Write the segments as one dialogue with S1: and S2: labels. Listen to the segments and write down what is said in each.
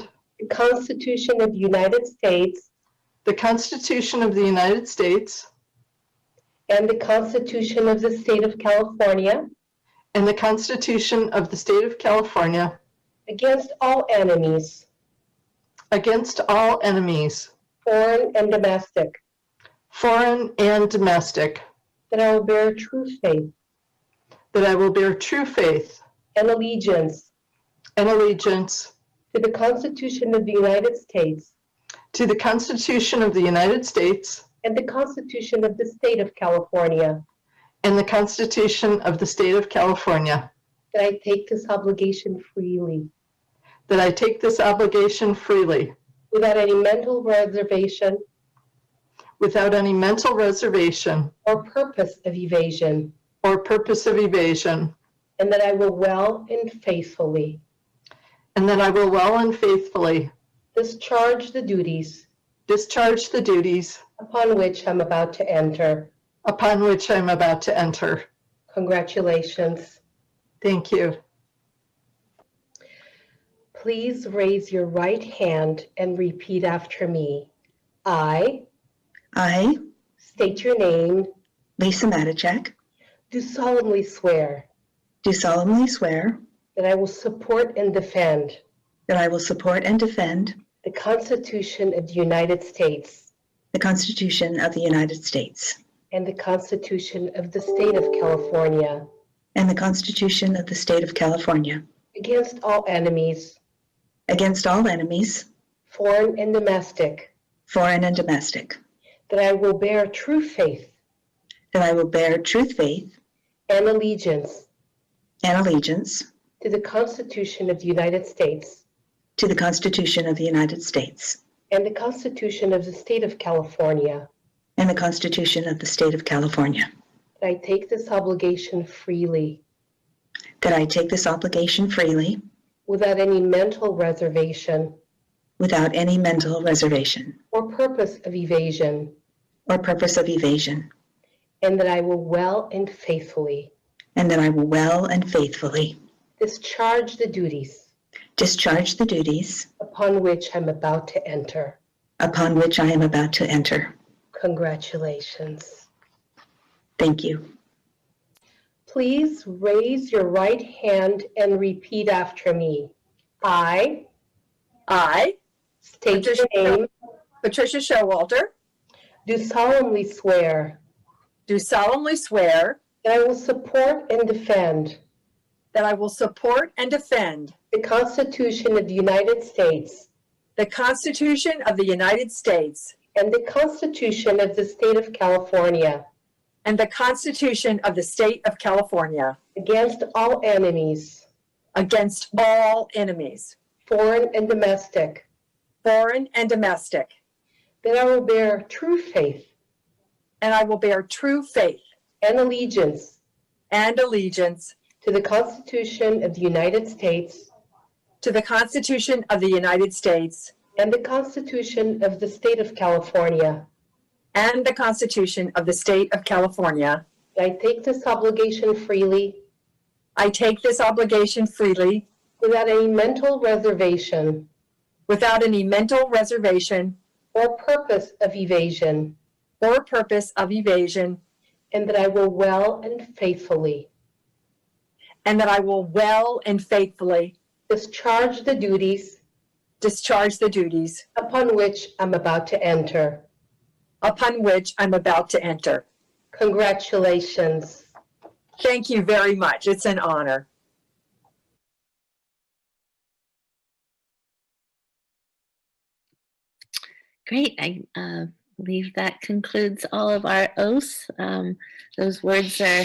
S1: the Constitution of the United States
S2: the Constitution of the United States
S1: and the Constitution of the State of California
S2: and the Constitution of the State of California
S1: against all enemies,
S2: against all enemies,
S1: foreign and domestic,
S2: foreign and domestic,
S1: that I will bear true faith
S2: that I will bear true faith
S1: and allegiance
S2: and allegiance
S1: to the Constitution of the United States
S2: to the Constitution of the United States
S1: and the Constitution of the State of California,
S2: and the Constitution of the State of California,
S1: that I take this obligation freely
S2: that I take this obligation freely
S1: without any mental reservation
S2: without any mental reservation
S1: or purpose of evasion,
S2: or purpose of evasion,
S1: and that I will well and faithfully
S2: and that I will well and faithfully
S1: discharge the duties
S2: discharge the duties
S1: upon which I'm about to enter.
S2: upon which I am about to enter.
S1: Congratulations.
S2: Thank you.
S1: Please raise your right hand and repeat after me. I
S3: I,
S1: state your name,
S3: Lisa Matichak,
S1: do solemnly swear
S3: do solemnly swear
S1: that I will support and defend
S3: that I will support and defend
S1: the Constitution of the United States
S3: the Constitution of the United States
S1: and the Constitution of the State of California
S3: and the Constitution of the State of California
S1: against all enemies,
S3: against all enemies,
S1: foreign and domestic,
S3: foreign and domestic,
S1: that I will bear true faith
S3: that I will bear true faith
S1: and allegiance
S3: and allegiance
S1: to the Constitution of the United States
S3: to the Constitution of the United States
S1: and the Constitution of the State of California
S3: and the Constitution of the State of California,
S1: that I take this obligation freely,
S3: that I take this obligation freely
S1: without any mental reservation
S3: without any mental reservation
S1: or purpose of evasion,
S3: or purpose of evasion,
S1: and that I will well and faithfully
S3: and that I will well and faithfully
S1: discharge the duties
S3: discharge the duties
S1: upon which I'm about to enter.
S3: upon which I am about to enter.
S1: Congratulations.
S3: Thank you.
S1: Please raise your right hand and repeat after me. I
S4: I,
S1: state your
S4: Patricia.
S1: name,
S4: Patricia Showalter,
S1: do solemnly swear
S4: do solemnly swear
S1: that I will support and defend
S4: that I will support and defend
S1: the Constitution of the United States
S4: the Constitution of the United States
S1: and the Constitution of the State of California
S4: and the Constitution of the State of California
S1: against all enemies,
S4: against all enemies,
S1: foreign and domestic,
S4: foreign and domestic,
S1: that I will bear true faith
S4: and I will bear true faith
S1: and allegiance
S4: and allegiance
S1: to the Constitution of the United States
S4: to the Constitution of the United States
S1: and the Constitution of the State of California.
S4: and the Constitution of the State of California.
S1: I take this obligation freely
S4: I take this obligation freely
S1: without any mental reservation
S4: without any mental reservation
S1: or purpose of evasion,
S4: or purpose of evasion
S1: and that I will well and faithfully
S4: and that I will well and faithfully
S1: discharge the duties
S4: discharge the duties
S1: upon which I'm about to enter.
S4: upon which I'm about to enter.
S1: Congratulations.
S4: Thank you very much. It's an honor.
S5: Great. I uh, believe that concludes all of our oaths. Um, those words are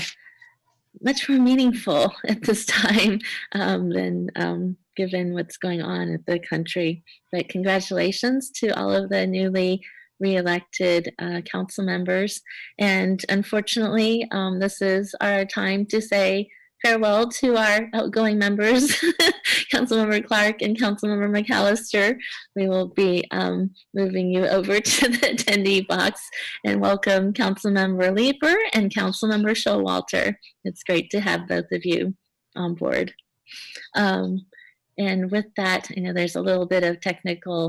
S5: much more meaningful at this time um, than um, given what's going on at the country. But congratulations to all of the newly reelected uh, council members. And unfortunately, um, this is our time to say farewell to our outgoing members, Councilmember Clark and Councilmember McAllister. We will be um, moving you over to the attendee box and welcome Councilmember Lieber and Councilmember Showalter. It's great to have both of you on board. Um, And with that, you know, there's a little bit of technical